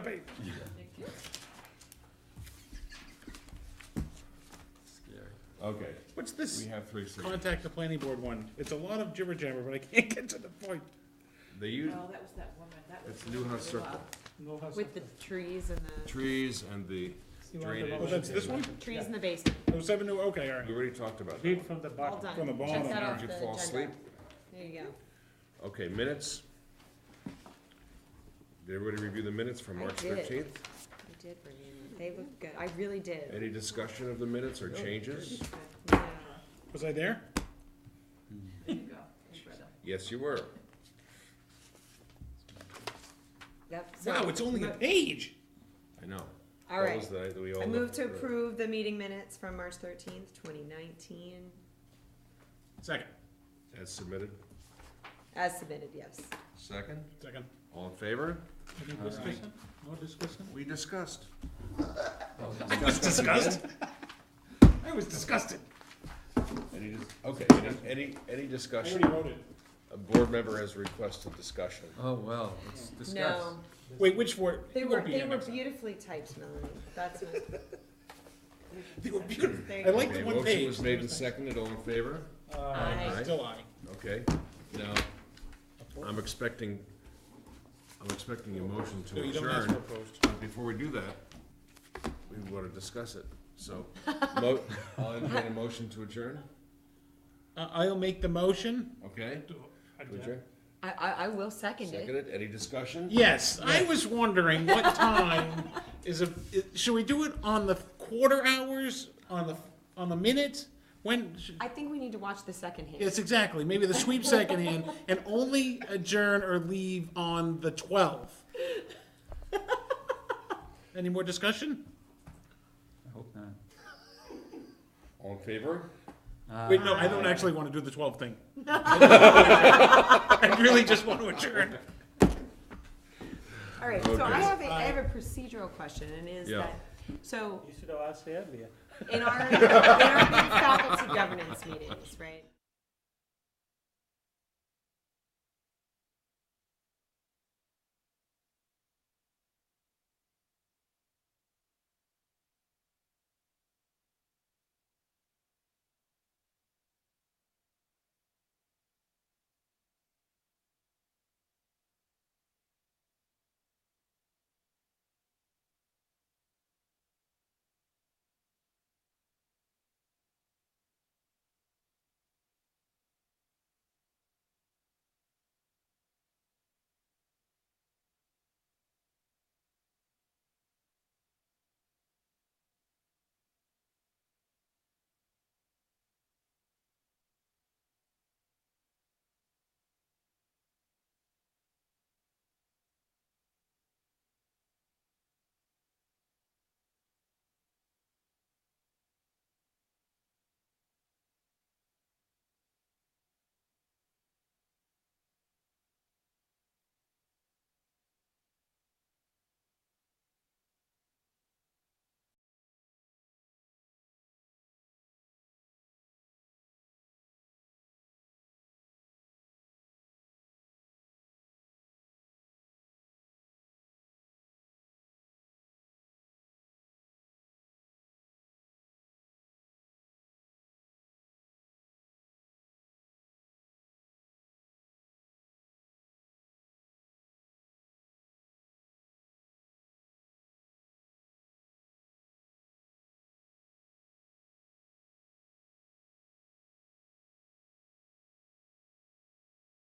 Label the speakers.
Speaker 1: happy.
Speaker 2: Scary. Okay,
Speaker 1: What's this
Speaker 2: we have three signatures.
Speaker 1: contact the planning board one? It's a lot of jibber jabber, but I can't get to the point.
Speaker 2: They use,
Speaker 3: No, that was that woman, that was.
Speaker 2: it's Newhouse Circle,
Speaker 1: No, how's
Speaker 4: With the
Speaker 1: that?
Speaker 4: trees and the,
Speaker 2: trees and the drainage.
Speaker 1: Oh, that's this one?
Speaker 4: trees in the basement,
Speaker 1: Oh, seven, oh, okay, all
Speaker 2: We
Speaker 1: right.
Speaker 2: already talked about that.
Speaker 1: Read from the
Speaker 4: all
Speaker 1: bottom,
Speaker 4: done.
Speaker 1: from the bottom.
Speaker 4: Check that
Speaker 1: all
Speaker 4: off
Speaker 1: right.
Speaker 2: Did
Speaker 4: the
Speaker 2: you fall
Speaker 4: agenda.
Speaker 2: asleep?
Speaker 4: There you go.
Speaker 2: Okay, minutes. Did everybody review the minutes from
Speaker 4: I
Speaker 2: March
Speaker 4: did.
Speaker 2: thirteenth?
Speaker 4: You did review them. They look good. I really did.
Speaker 2: Any discussion of the minutes or changes?
Speaker 4: No.
Speaker 1: Was I there?
Speaker 3: There you go. You read them.
Speaker 2: Yes, you were.
Speaker 4: Yep, so-
Speaker 1: Wow, it's only a page.
Speaker 2: I know.
Speaker 4: All
Speaker 2: That
Speaker 4: right.
Speaker 2: was the night that we all
Speaker 4: I move
Speaker 2: looked
Speaker 4: to
Speaker 2: through.
Speaker 4: approve the meeting minutes from March thirteenth, twenty nineteen,
Speaker 1: Second,
Speaker 2: As submitted.
Speaker 4: as submitted, yes.
Speaker 2: Second.
Speaker 1: second.
Speaker 2: All in favor?
Speaker 1: Any discussion? No discussion?
Speaker 2: We discussed.
Speaker 1: I was disgusted. I was disgusted.
Speaker 2: Any, dis- okay, any- any, any
Speaker 1: I
Speaker 2: discussion?
Speaker 1: already wrote it.
Speaker 2: A board member has requested discussion.
Speaker 5: Oh, well, let's discuss.
Speaker 4: No,
Speaker 1: Wait, which word?
Speaker 4: they
Speaker 1: It
Speaker 4: were,
Speaker 1: won't be
Speaker 4: they
Speaker 1: here
Speaker 4: were
Speaker 1: next time.
Speaker 4: beautifully typed, Melanie. That's my,
Speaker 1: They were beautiful.
Speaker 4: there you
Speaker 1: I
Speaker 4: go.
Speaker 1: like
Speaker 2: Okay,
Speaker 1: the one page.
Speaker 2: Motion was made and seconded, all in favor?
Speaker 1: Uh,
Speaker 2: Aye.
Speaker 1: Still aye.
Speaker 2: Okay, now, I'm expecting, I'm expecting a motion
Speaker 1: No,
Speaker 2: to
Speaker 1: you don't ask for
Speaker 2: adjourn.
Speaker 1: opposed.
Speaker 2: But before we do that, we wanna discuss it, so, mo- I'll entertain a motion to adjourn,
Speaker 1: Uh, I'll make the motion.
Speaker 2: okay? To adjourn,
Speaker 4: I, I, I will second it.
Speaker 2: seconded, any discussion?
Speaker 1: Yes, I was wondering what time is a, i- should we do it on the quarter hours, on the, on the minute? When, sh-
Speaker 4: I think we need to watch the second hand.
Speaker 1: yes, exactly, maybe the sweep second hand, and only adjourn or leave on the twelfth. Any more discussion?
Speaker 5: I hope not.
Speaker 2: All in favor?
Speaker 1: Wait, no, I don't actually wanna do the twelve thing. I really just wanna adjourn.
Speaker 4: All right, so I
Speaker 2: Okay.
Speaker 4: have a, I have a procedural question, and is
Speaker 2: Yeah.
Speaker 4: that, so
Speaker 6: You should have asked earlier.
Speaker 4: in our, in our good faculty governance meetings, right?